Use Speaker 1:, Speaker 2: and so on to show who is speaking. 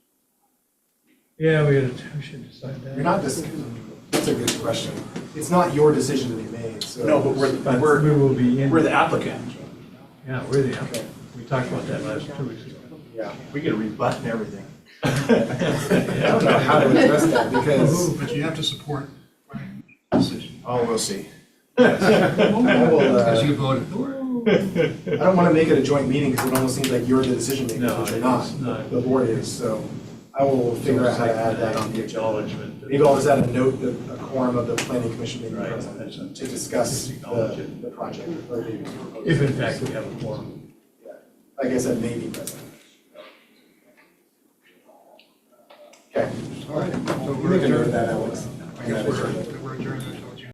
Speaker 1: Yeah, we gotta, we should decide that.
Speaker 2: You're not just, that's a good question. It's not your decision to be made, so.
Speaker 3: No, but we're,
Speaker 1: But
Speaker 3: we're,
Speaker 1: we will be in.
Speaker 3: we're the applicant.
Speaker 1: Yeah, we're the
Speaker 2: Okay.
Speaker 1: applicant. We talked about that last two weeks ago.
Speaker 2: Yeah.
Speaker 3: We get a rebut and everything.
Speaker 2: I don't know how to address that because,
Speaker 4: But you have to support my decision,
Speaker 2: oh, we'll see. I will, uh,
Speaker 4: because you voted for it.
Speaker 2: I don't want to make it a joint meeting because it almost seems like you're the decision maker,
Speaker 1: No,
Speaker 2: which you're
Speaker 1: it's
Speaker 2: not.
Speaker 1: not.
Speaker 2: The board is, so I will figure out how to add that on the agenda.
Speaker 1: acknowledgement.
Speaker 2: Maybe I'll just add a note, that a quorum of the planning commission may be
Speaker 1: Right, that's
Speaker 2: present
Speaker 1: something.
Speaker 2: to discuss
Speaker 1: Just acknowledge
Speaker 2: the,
Speaker 1: it.
Speaker 2: the project. or the-
Speaker 1: If in fact we have a forum.
Speaker 2: Yeah. Like I said, may be present. Okay.
Speaker 4: All right, so
Speaker 2: You
Speaker 4: we're
Speaker 2: make a note of
Speaker 4: adjourned.
Speaker 2: that, Alex.
Speaker 4: I guess we're, we're adjourned until